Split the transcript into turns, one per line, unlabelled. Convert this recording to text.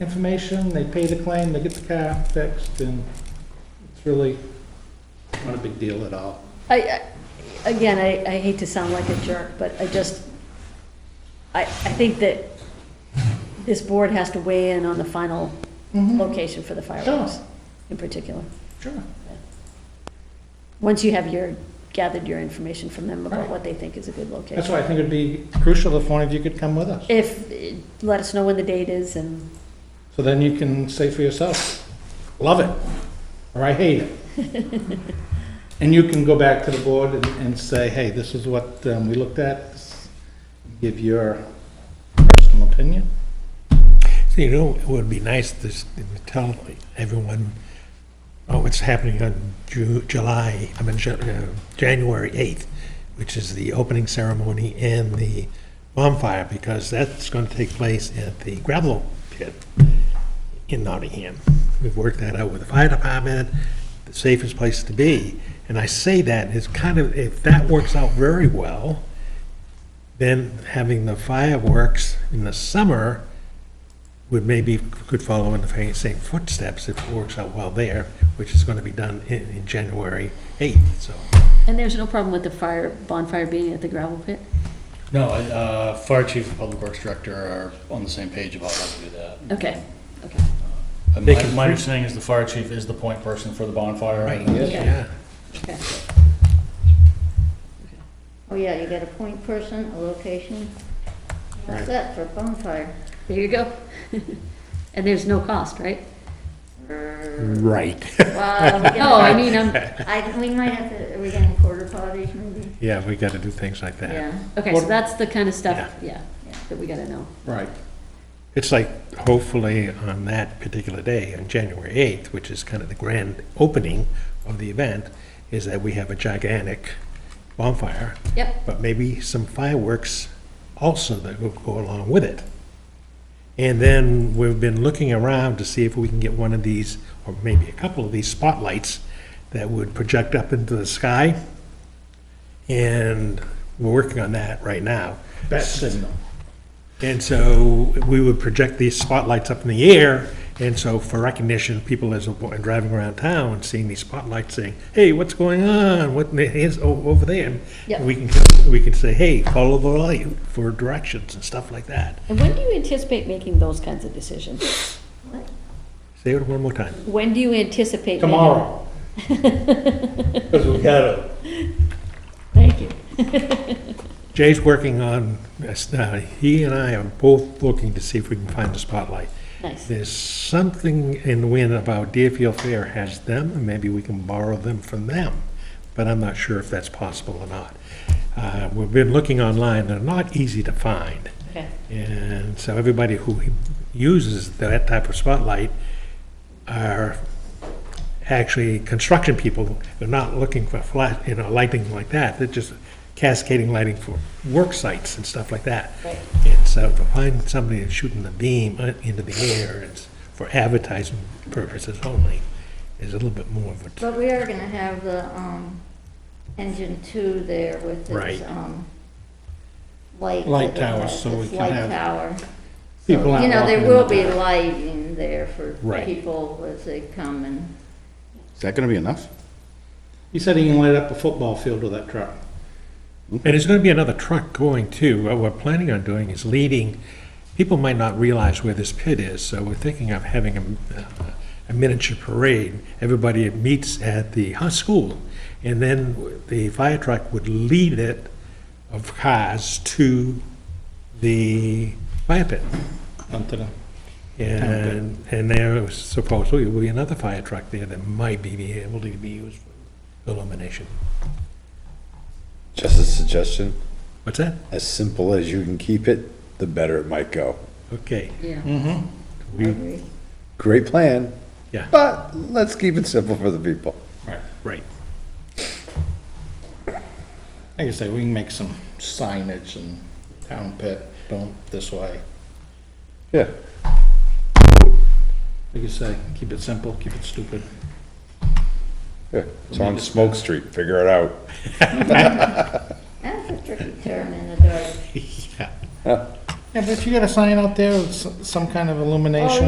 information, they pay the claim, they get the car fixed, and it's really not a big deal at all.
I, I- again, I, I hate to sound like a jerk, but I just, I, I think that this board has to weigh in on the final
Mm-hmm.
location for the fireworks in particular.
Sure.
Once you have your, gathered your information from them about
Right.
what they think is a good location.
That's why I think it'd be crucial if one of you could come with us.
If, eh, let us know when the date is and,
So then you can say for yourself, love it, or I hate it. And you can go back to the board and, and say, hey, this is what um, we looked at, give your personal opinion.
So, you know, it would be nice to s- to tell everyone, oh, what's happening on Ju- July, I mean, Ju- uh, January 8th, which is the opening ceremony and the bonfire, because that's going to take place at the gravel pit in Nottingham. We've worked that out with the fire department, the safest place to be. And I say that, it's kind of, if that works out very well, then having the fireworks in the summer would maybe, could follow in the fa- same footsteps if it works out well there, which is going to be done in, in January 8th, so.
and there's no problem with the fire, bonfire being at the gravel pit?
No, I- uh, fire chief and public works director are on the same page about how to do that.
Okay, okay.
Uh,
They
My
can-
my understanding is the fire chief is the point person for the bonfire.
Yes.
Yeah.
Okay.
Oh, yeah, you got a point person, a location. That's it for a bonfire.
There you go. And there's no cost, right?
Mm.
Right.
Well, we
No, Oh, I
gotta-
mean, I'm,
I, we might have to, are we getting quarter potties maybe?
Yeah, we got to do things like that.
Yeah.
Okay, so that's the kind of stuff, yeah,
Yeah.
that we gotta know.
Right.
It's like, hopefully, on that particular day, on January 8th, which is kind of the grand opening of the event, is that we have a gigantic bonfire,
Yep,
but maybe some fireworks also that will go along with it. And then we've been looking around to see if we can get one of these, or maybe a couple of these spotlights that would project up into the sky. And we're working on that right now.
Bat signal.
And so we would project these spotlights up in the air, and so for recognition, people as they're driving around town, seeing these spotlights, saying, hey, what's going on? What is o- over there?
Yep.
And We can, we can say, hey, follow the light for directions and stuff like that.
and when do you anticipate making those kinds of decisions?
Say it one more time.
When do you anticipate? making-
Tomorrow. Because we got it.
Thank you.
Jay's working on, uh, he and I are both looking to see if we can find the spotlight.
Nice,
There's something in the wind about Deerfield Fair has them, and maybe we can borrow them from them, but I'm not sure if that's possible or not. Uh, We've been looking online, they're not easy to find,
okay.
and so everybody who uses that type of spotlight are actually construction people, they're not looking for flat, you know, lighting like that, they're just cascading lighting for work sites and stuff like that.
Right.
And so to find somebody that's shooting the beam uh, into the air, it's for advertising purposes only, is a little bit more of a,
But we are gonna have the, um, engine two there with its,
Right.
um, light.
Light
that it
towers,
has,
so we
its
can
light
have
tower. So,
People out
You know, there
walking in
will
the
be
town.
lighting there for
Right.
people as they come and,
Is that going to be enough?
He said he can light up a football field with that truck.
and there's gonna be another truck going too. What we're planning on doing is leading, people might not realize where this pit is, so we're thinking of having a, uh, a miniature parade. Everybody meets at the high school, and then the fire truck would lead it of cars to the fire pit.
Something.
And, and there supposedly will be another fire truck there that might be- be able to be used for illumination.
Just a suggestion,
What's that?
as simple as you can keep it, the better it might go.
Okay,
Yeah.
every-
Great plan.
Yeah.
But let's keep it simple for the people.
right.
Like I say, we can make some signage and town pit, don't this way.
Yeah.
Like you say, keep it simple, keep it stupid.
yeah. It's on Smoke Street, figure it out.
that's a tricky turn in the dark.
Yeah, but if you got a sign out there with s- some kind of illumination